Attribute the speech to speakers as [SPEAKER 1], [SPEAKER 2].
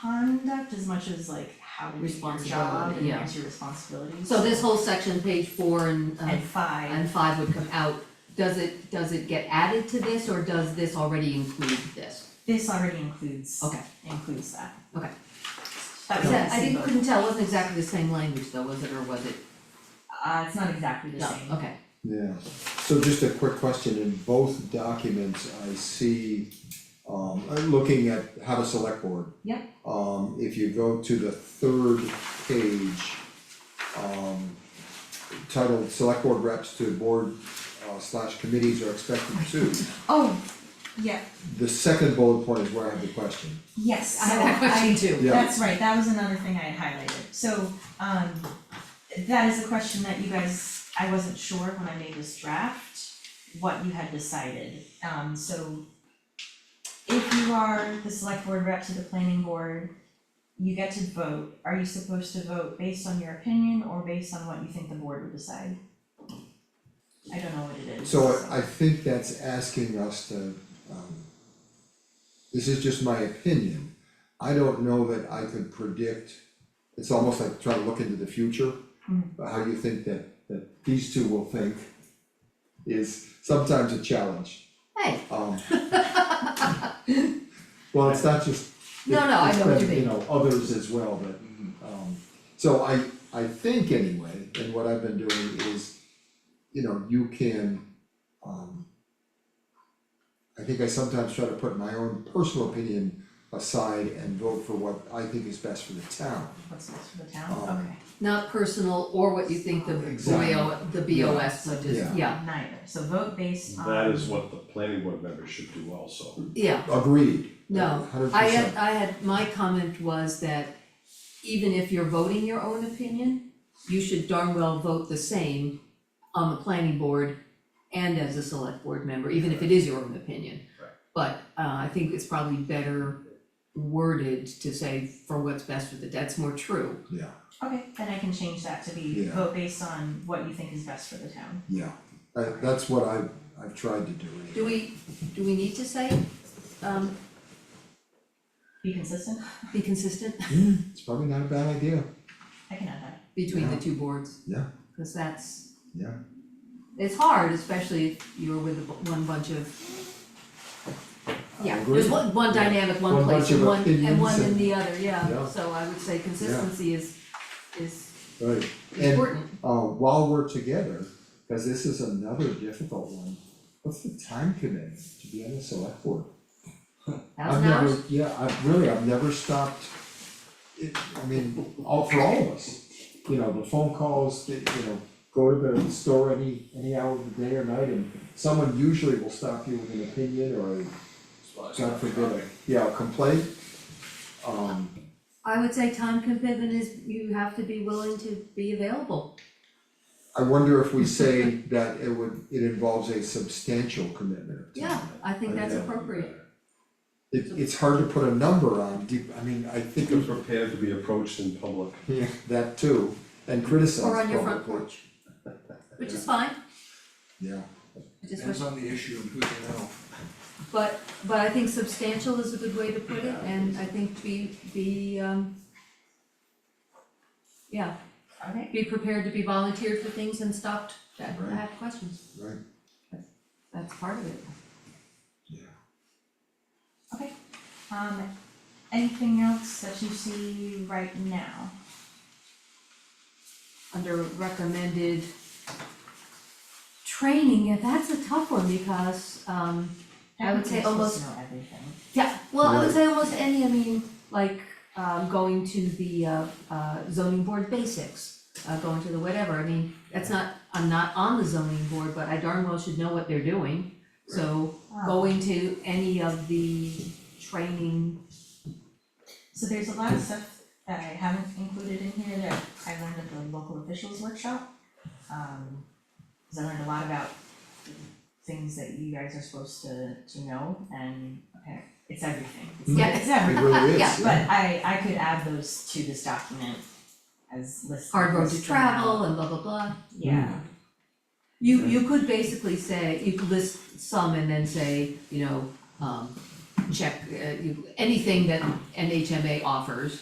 [SPEAKER 1] conduct as much as like how to do your job
[SPEAKER 2] Responsibility,
[SPEAKER 1] and
[SPEAKER 2] yeah.
[SPEAKER 1] what's your responsibility.
[SPEAKER 2] So this whole section, page four and, uh,
[SPEAKER 1] And five,
[SPEAKER 2] and five would come out. Does it, does it get added to this or does this already include this?
[SPEAKER 1] this already includes,
[SPEAKER 2] Okay.
[SPEAKER 1] includes that.
[SPEAKER 2] Okay.
[SPEAKER 1] That was
[SPEAKER 2] Is that-
[SPEAKER 1] nice
[SPEAKER 2] I
[SPEAKER 1] to
[SPEAKER 2] didn't,
[SPEAKER 1] see,
[SPEAKER 2] couldn't tell, it wasn't exactly the same language though, was it, or was it?
[SPEAKER 1] but, uh, it's not exactly the
[SPEAKER 2] No,
[SPEAKER 1] same.
[SPEAKER 2] okay,
[SPEAKER 3] Yeah, so just a quick question, in both documents, I see, um, I'm looking at how to select board.
[SPEAKER 1] Yep.
[SPEAKER 3] Um, if you go to the third page, um, titled Select Board Reps to Board uh, slash Committees are expected to.
[SPEAKER 1] Oh, yeah,
[SPEAKER 3] The second bullet point is where I have the question,
[SPEAKER 1] yes,
[SPEAKER 2] I have that
[SPEAKER 1] so I-
[SPEAKER 2] question too.
[SPEAKER 3] Yeah.
[SPEAKER 1] That's right, that was another thing I had highlighted, so, um, that is a question that you guys, I wasn't sure when I made this draft, what you had decided, um, so if you are the select board rep to the planning board, you get to vote, are you supposed to vote based on your opinion or based on what you think the board would decide? I don't know what it is.
[SPEAKER 3] so I, I think that's asking us to, um, this is just my opinion, I don't know that I could predict, it's almost like trying to look into the future. But How you think that, that these two will think is sometimes a challenge,
[SPEAKER 2] Hey,
[SPEAKER 3] um. Well, it's not just,
[SPEAKER 2] No, no, I
[SPEAKER 3] it's
[SPEAKER 2] know what you
[SPEAKER 3] been, you
[SPEAKER 2] mean.
[SPEAKER 3] know, others as well, but, um, so I, I think anyway, and what I've been doing is, you know, you can, um, I think I sometimes try to put my own personal opinion aside and vote for what I think is best for the town.
[SPEAKER 1] What's next for the
[SPEAKER 3] Um,
[SPEAKER 1] town,
[SPEAKER 2] not personal or what you think the
[SPEAKER 3] Exactly.
[SPEAKER 2] BO, the BOS would just,
[SPEAKER 3] Yeah.
[SPEAKER 2] yeah,
[SPEAKER 1] okay, neither, so vote based on.
[SPEAKER 4] That
[SPEAKER 2] Um,
[SPEAKER 4] is what the planning board members should do also.
[SPEAKER 2] yeah,
[SPEAKER 3] Agreed.
[SPEAKER 2] no.
[SPEAKER 3] Hundred
[SPEAKER 2] I had,
[SPEAKER 3] percent,
[SPEAKER 2] I had, my comment was that even if you're voting your own opinion, you should darn well vote the same on the planning board and as a select board member, even if it is your own opinion.
[SPEAKER 4] Right.
[SPEAKER 2] But uh I think it's probably better worded to say for what's best for the, that's more true.
[SPEAKER 3] yeah,
[SPEAKER 1] Okay, then I can change that to be
[SPEAKER 3] Yeah.
[SPEAKER 1] vote based on what you think is best for the town.
[SPEAKER 3] yeah, I- that's what I, I've tried to do.
[SPEAKER 2] Do we, do we need to say, um,
[SPEAKER 1] Be consistent,
[SPEAKER 2] be consistent
[SPEAKER 3] Hmm, it's probably not a bad idea,
[SPEAKER 1] I can add that.
[SPEAKER 2] between the
[SPEAKER 3] Yeah.
[SPEAKER 2] two boards?
[SPEAKER 3] Yeah.
[SPEAKER 2] Cause that's,
[SPEAKER 3] yeah,
[SPEAKER 2] it's hard, especially if you're with a bu- one bunch of
[SPEAKER 3] I
[SPEAKER 2] Yeah,
[SPEAKER 3] agree.
[SPEAKER 2] there's one, one
[SPEAKER 3] Yeah.
[SPEAKER 2] dynamic, one
[SPEAKER 3] One
[SPEAKER 2] place,
[SPEAKER 3] bunch
[SPEAKER 2] and
[SPEAKER 3] of
[SPEAKER 2] one, and
[SPEAKER 3] opinions
[SPEAKER 2] one in
[SPEAKER 3] and-
[SPEAKER 2] the other, yeah,
[SPEAKER 3] Yeah.
[SPEAKER 2] so I would say consistency is, is
[SPEAKER 3] Right, and
[SPEAKER 2] important.
[SPEAKER 3] uh while we're together, cause this is another difficult one, what's the time commitment to be on the select board? I've
[SPEAKER 2] Thousand
[SPEAKER 3] never,
[SPEAKER 2] hours,
[SPEAKER 3] yeah, I've really, I've never stopped, it, I mean, all, for all of us. You know, the phone calls, the, you know, go to the store any, any hour of the day or night, and someone usually will stop you with an opinion or a, God forbid, a- yeah, a complaint. Um,
[SPEAKER 2] I would say time commitment is, you have to be willing to be available.
[SPEAKER 3] I wonder if we say that it would, it involves a substantial commitment of time.
[SPEAKER 2] Yeah, I think that's
[SPEAKER 3] that would be
[SPEAKER 2] appropriate.
[SPEAKER 3] better. It, it's hard to put a number on, do, I mean, I think
[SPEAKER 4] Be
[SPEAKER 3] of,
[SPEAKER 4] prepared to be approached in public.
[SPEAKER 3] yeah, that too, and criticize
[SPEAKER 2] Or on your front
[SPEAKER 3] publicly.
[SPEAKER 2] porch. Which is fine,
[SPEAKER 3] Yeah,
[SPEAKER 2] I just wish,
[SPEAKER 5] Depends on the issue and who you know.
[SPEAKER 2] but, but I think substantial is a good way to put it, and I think be, be, um, yeah,
[SPEAKER 1] Okay,
[SPEAKER 2] be prepared to be volunteered for things and stopped, to
[SPEAKER 3] Right.
[SPEAKER 2] have questions,
[SPEAKER 3] right,
[SPEAKER 2] that's part of it.
[SPEAKER 3] yeah.
[SPEAKER 1] okay. Um, anything else that you see right now?
[SPEAKER 2] under recommended training, yeah, that's a tough one because, um, I would say
[SPEAKER 1] Everybody's
[SPEAKER 2] almost,
[SPEAKER 1] supposed to know everything.
[SPEAKER 2] yeah, well, I would say almost any, I mean, like, um, going to the, uh, uh, zoning board basics, uh, going to the whatever, I mean, that's not, I'm not on the zoning board, but I darn well should know what they're doing. So
[SPEAKER 1] Wow.
[SPEAKER 2] going to any of the training,
[SPEAKER 1] So there's a lot of stuff that I haven't included in here that I learned at the local officials workshop. Um, 'cause I learned a lot about things that you guys are supposed to, to know and, okay, it's everything. It's-
[SPEAKER 2] Yeah.
[SPEAKER 1] It's everything.
[SPEAKER 3] It really is,
[SPEAKER 2] Yeah,
[SPEAKER 3] yeah.
[SPEAKER 1] But I I could add those to this document as lists.
[SPEAKER 2] hard road to
[SPEAKER 1] lists them out.
[SPEAKER 2] travel and blah, blah, blah.
[SPEAKER 1] Yeah,
[SPEAKER 2] You, you could basically say, you could list some and then say, you know, um, check, uh, you- anything that NHMA offers,